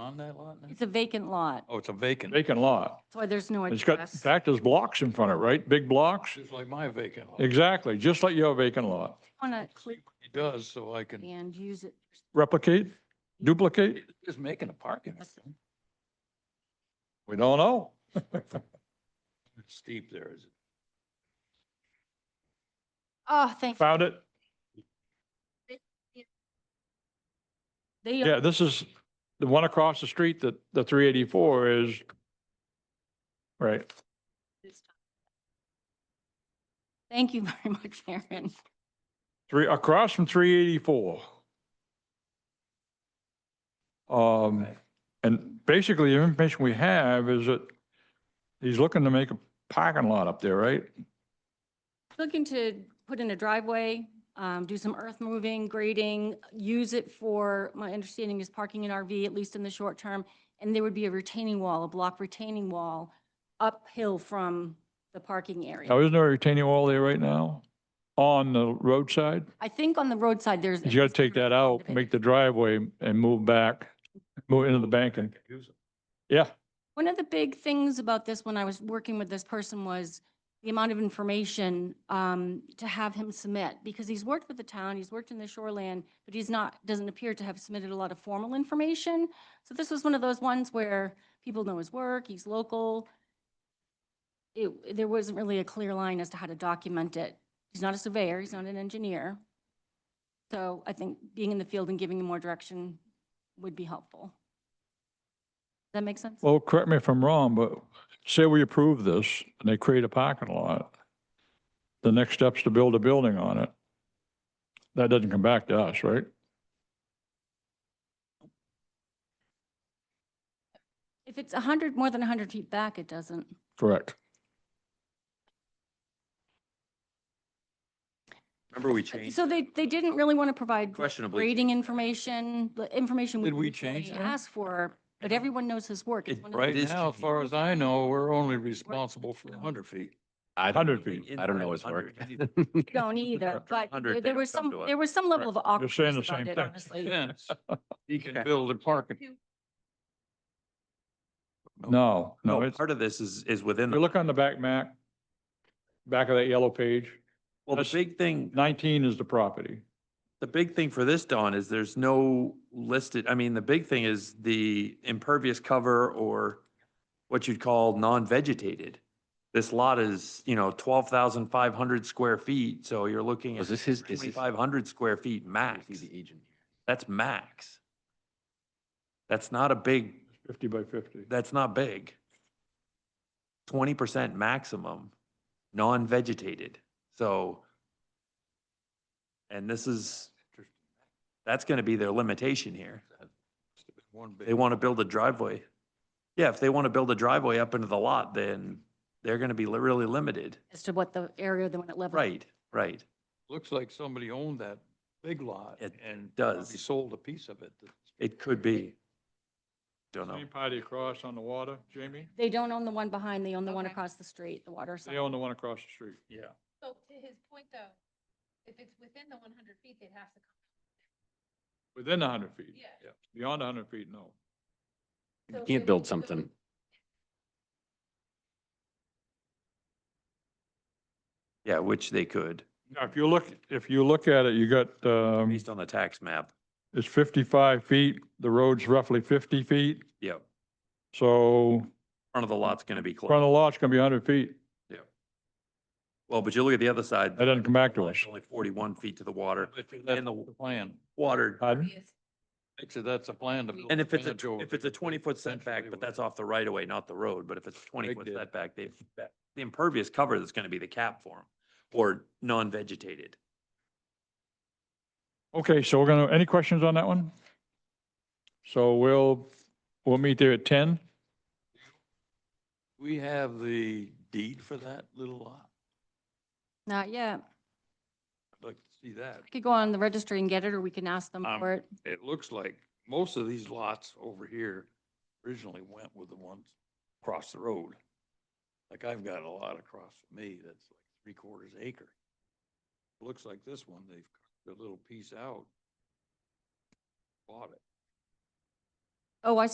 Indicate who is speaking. Speaker 1: on that lot now?
Speaker 2: It's a vacant lot,
Speaker 1: Oh, it's a vacant,
Speaker 3: vacant lot.
Speaker 2: that's why there's no
Speaker 3: It's got, in
Speaker 2: address.
Speaker 3: fact, there's blocks in front of it, right? Big blocks?
Speaker 1: just like my vacant lot. It
Speaker 3: Exactly, just like your vacant lot.
Speaker 2: Want
Speaker 1: does, so I
Speaker 2: to,
Speaker 1: can,
Speaker 2: and use it.
Speaker 3: Replicate, duplicate?
Speaker 1: just making a parking. lot.
Speaker 3: We don't know.
Speaker 1: It's steep there, is it?
Speaker 2: Oh, thank, you.
Speaker 3: Found it?
Speaker 2: they,
Speaker 3: Yeah, this is the one across the street that the three eighty-four is. Right,
Speaker 2: thank you very much, Aaron.
Speaker 3: three, across from three eighty-four. Um, and basically the information we have is that he's looking to make a parking lot up there, right?
Speaker 2: Looking to put in a driveway, um, do some earth moving, grading, use it for, my understanding is parking an RV, at least in the short term. And there would be a retaining wall, a block retaining wall uphill from the parking area.
Speaker 3: Now, isn't there a retaining wall there right now on the roadside?
Speaker 2: I think on the roadside, there's.
Speaker 3: You gotta take that out, make the driveway and move back, move into the banking.
Speaker 1: Use it.
Speaker 3: Yeah,
Speaker 2: One of the big things about this, when I was working with this person, was the amount of information um, to have him submit, because he's worked with the town, he's worked in the shoreland, but he's not, doesn't appear to have submitted a lot of formal information. So this was one of those ones where people know his work, he's local. It, there wasn't really a clear line as to how to document it. He's not a surveyor, he's not an engineer. So I think being in the field and giving him more direction would be helpful. Does that make sense?
Speaker 3: well, correct me if I'm wrong, but say we approve this and they create a parking lot. The next step's to build a building on it. That doesn't come back to us, right?
Speaker 2: If it's a hundred, more than a hundred feet back, it doesn't.
Speaker 3: Correct.
Speaker 1: Remember we changed,
Speaker 2: So they, they didn't really want to provide
Speaker 1: questionably,
Speaker 2: grading information, the information.
Speaker 1: Did we
Speaker 2: usually
Speaker 1: change that?
Speaker 2: Ask for, but everyone knows his work. It's
Speaker 1: it-
Speaker 2: one of the-
Speaker 1: right
Speaker 4: It is
Speaker 1: now, as
Speaker 4: changed.
Speaker 1: far as I know, we're only responsible for hundred feet.
Speaker 4: I
Speaker 3: 100
Speaker 4: don't-
Speaker 3: feet.
Speaker 4: I don't know his work.
Speaker 1: 100 either.
Speaker 2: Don't either, but
Speaker 4: 100,
Speaker 2: there-
Speaker 4: they
Speaker 2: there was
Speaker 4: come
Speaker 2: some,
Speaker 4: to us.
Speaker 2: there was some level of
Speaker 3: You're saying the
Speaker 2: awkwardness about
Speaker 3: same
Speaker 2: it,
Speaker 3: thing.
Speaker 2: honestly.
Speaker 1: Fence. He can build a parking.
Speaker 3: No, no,
Speaker 4: No,
Speaker 3: it's,
Speaker 4: part of this is, is within,
Speaker 3: you
Speaker 4: the
Speaker 3: look on the back map, back of that yellow page,
Speaker 4: well, the
Speaker 3: that's-
Speaker 4: big thing,
Speaker 3: nineteen is the property.
Speaker 4: the big thing for this, Don, is there's no listed, I mean, the big thing is the impervious cover or what you'd call non-vegetated. This lot is, you know, twelve thousand five hundred square feet, so you're
Speaker 1: Oh,
Speaker 4: looking at
Speaker 5: Was this his, is this?
Speaker 4: twenty-five hundred square feet max.
Speaker 5: He's the agent here.
Speaker 4: That's max. That's not a big,
Speaker 3: Fifty by fifty.
Speaker 4: that's not big. Twenty percent maximum, non-vegetated, so. And this is, that's gonna be their limitation here.
Speaker 1: One big-
Speaker 4: They wanna build a driveway. Yeah, if they wanna build a driveway up into the lot, then they're gonna be li- really limited.
Speaker 2: As to what the area, the one that level.
Speaker 4: Right, right.
Speaker 1: Looks like somebody owned that big lot
Speaker 4: It
Speaker 1: and.
Speaker 4: does.
Speaker 1: probably Sold a piece of it.
Speaker 4: It could be. Don't know.
Speaker 3: Same party across on the water, Jamie?
Speaker 2: They don't own the one behind, they own the one
Speaker 6: Okay.
Speaker 2: across the street, the water
Speaker 3: They
Speaker 2: side.
Speaker 3: own the one across the street. Yeah.
Speaker 6: So to his point though, if it's within the one hundred feet, they'd have to come.
Speaker 3: Within hundred feet.
Speaker 6: Yeah.
Speaker 3: Beyond hundred feet, no.
Speaker 6: So
Speaker 5: You
Speaker 6: if
Speaker 5: can't
Speaker 6: it
Speaker 5: build
Speaker 6: was within-
Speaker 5: something.
Speaker 4: Yeah, which they could,
Speaker 3: Now, if you look, if you look at it, you got, um,
Speaker 4: based on the tax map.
Speaker 3: it's fifty-five feet, the road's roughly fifty feet,
Speaker 4: Yep,
Speaker 3: so
Speaker 4: front of the lot's gonna be
Speaker 3: front
Speaker 4: closed.
Speaker 3: of the lot's gonna be hundred feet.
Speaker 4: Well, but you look at the other side.
Speaker 3: That doesn't come back to us.
Speaker 4: It's Only forty-one feet to the water,
Speaker 1: And the plan.
Speaker 4: water.
Speaker 3: Pardon?
Speaker 6: Yes.
Speaker 1: Actually, that's a plan to. build
Speaker 4: And if it's a,
Speaker 1: fence over
Speaker 4: if it's
Speaker 1: there,
Speaker 4: a twenty-foot setback,
Speaker 1: essentially
Speaker 4: but
Speaker 1: what-
Speaker 4: that's off the right of way, not the road, but if it's twenty-foot
Speaker 1: did.
Speaker 4: setback, they've, that- the impervious cover is gonna be the cap for them, or non-vegetated.
Speaker 3: Okay, so we're gonna, any questions on that one? So we'll, we'll meet there at ten.
Speaker 1: We have the deed for that little lot.
Speaker 2: Not yet.
Speaker 1: I'd like to see that.
Speaker 2: Could go on the registry and get it, or we can ask them
Speaker 1: Um,
Speaker 2: for it.
Speaker 1: It looks like most of these lots over here originally went with the ones across the road. Like I've got a lot across from me that's like three quarters acre. Looks like this one, they've cut a little piece out. Bought it.
Speaker 2: Oh, I